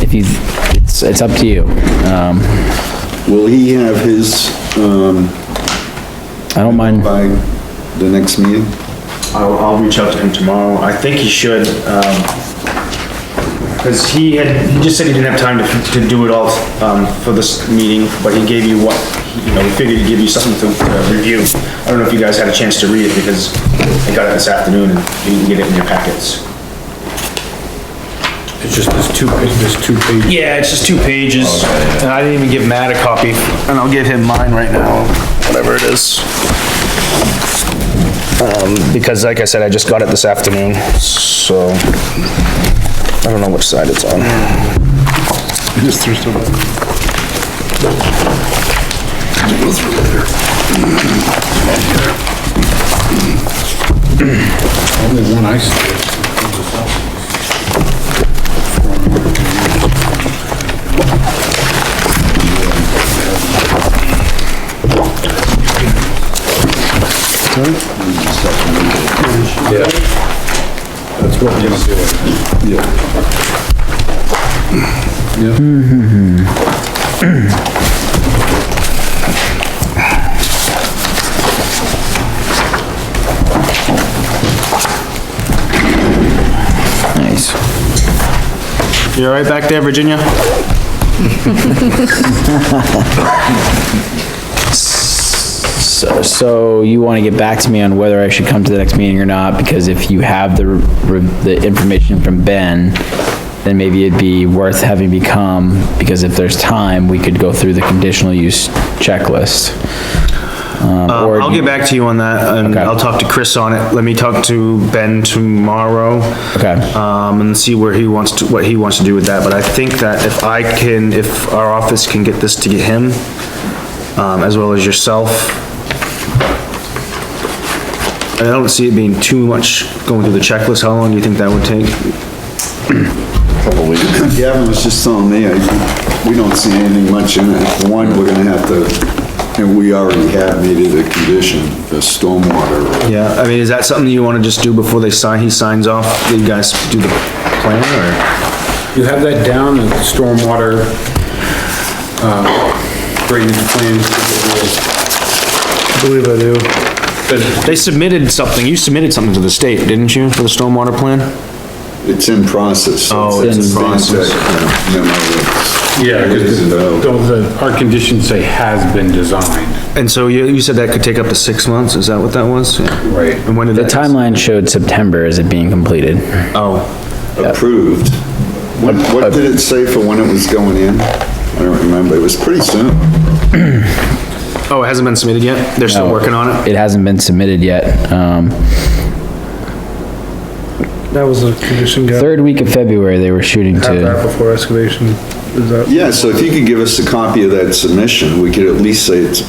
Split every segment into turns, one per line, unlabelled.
if you, it's, it's up to you. Um,
Will he have his, um,
I don't mind,
by the next meeting?
I'll, I'll reach out to him tomorrow. I think he should, um, cause he had, he just said he didn't have time to, to do it all, um, for this meeting, but he gave you what, you know, he figured he'd give you something to uh, review. I don't know if you guys had a chance to read it because I got it this afternoon and you can get it in your packets.
It's just, there's two, pa- there's two pages.
Yeah, it's just two pages and I didn't even give Matt a copy. And I'll give him mine right now, whatever it is. Um, because like I said, I just got it this afternoon, so I don't know which side it's on.
Just through some. Only one I see. Yeah. That's what we're doing. Yeah.
nice.
You all right back there, Virginia?
So, so you want to get back to me on whether I should come to the next meeting or not, because if you have the, re- the information from Ben, then maybe it'd be worth having me come, because if there's time, we could go through the conditional use checklist. Um, or
Uh, I'll
do you-
get back to you on that, and
Okay.
I'll talk to Chris on it. Let me talk to Ben tomorrow.
Okay.
Um, and see where he wants to, what he wants to do with that, but I think that if I can, if our office can get this to get him, um, as well as yourself, I don't see it being too much going through the checklist. How long do you think that would take?
Gavin was just telling me, I, we don't see anything much in it. The One, we're gonna have to, and we already have made it a condition, the stormwater.
Yeah, I mean, is that something you wanna just do before they sign, he signs off, you guys do the plan, or?
You have that down, the stormwater, uh, drainage plan.
I believe I do.
But
They submitted something, you submitted something to the state, didn't you, for the stormwater plan?
It's in process. so
Oh, it's
in
process. yeah, memo that's-
Yeah,
Is
because
it out?
the, our conditions say has been designed.
And so you, you said that could take up to six months, is that what that was? Yeah.
Right.
And when did
The
that?
timeline showed September as it being completed.
Oh,
approved. What, what did it say for when it was going in? I don't remember, it was pretty soon.
oh, it hasn't been submitted yet? They're still
No.
working on it?
It hasn't been submitted yet. Um,
That was a condition, got
third week of February, they were shooting
had that
to,
before excavation, is that?
Yeah, so if you could give us a copy of that submission, we could at least say it's,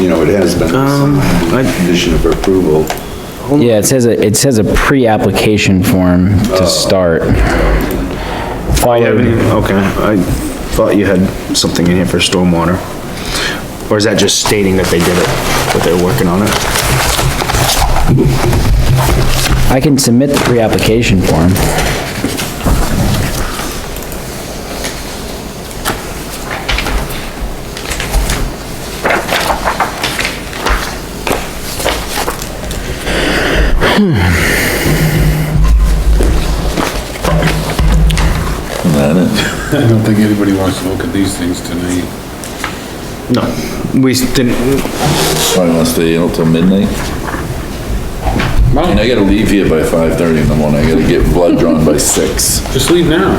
you know, it has been
Um, I-
a condition of approval.
yeah, it says, a- it says a pre-application form to start.
Oh, you
Followed-
haven't even, okay, I thought you had something in here for stormwater. Or is that just stating that they did it, that they're working on it?
I can submit the pre-application form.
I don't think anybody wants to look at these things tonight.
No, we didn't,
Probably wanna stay out till midnight. And I gotta leave here by five thirty in the morning, I gotta get blood drawn by six.
Just leave now.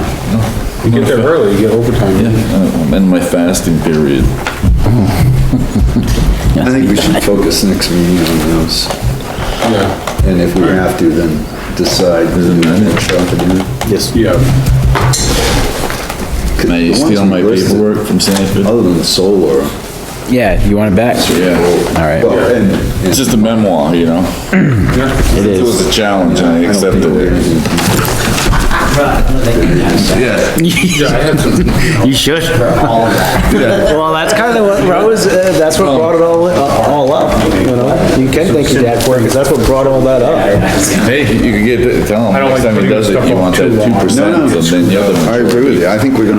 You get there early, you get
Yeah,
overtime.
I'm in my fasting period.
I think we should focus next meeting on those,
Yeah,
and if we have to, then decide. Isn't that
yeah.
Can I steal my paperwork from Sanford?
Other than the solar.
Yeah, you want it back?
Yeah,
All right,
Well, and- and-
it's just a memoir, you know?
it
It
is.
was a challenge and I
I don't think
accepted
we're
it.
gonna-
Yeah,
Yeah, I had some,
you should. Well, that's kinda what Rose, uh, that's what brought it all, Uh, all up, you know? You can thank your dad for it, cause that's what brought all that up.
hey, you can get, it- tell him,
don't like
next time he
putting
does it,
stuff
you
up
want that
too long.
two
No,
percent,
no,
and then the other
I agree with you, I think we're gonna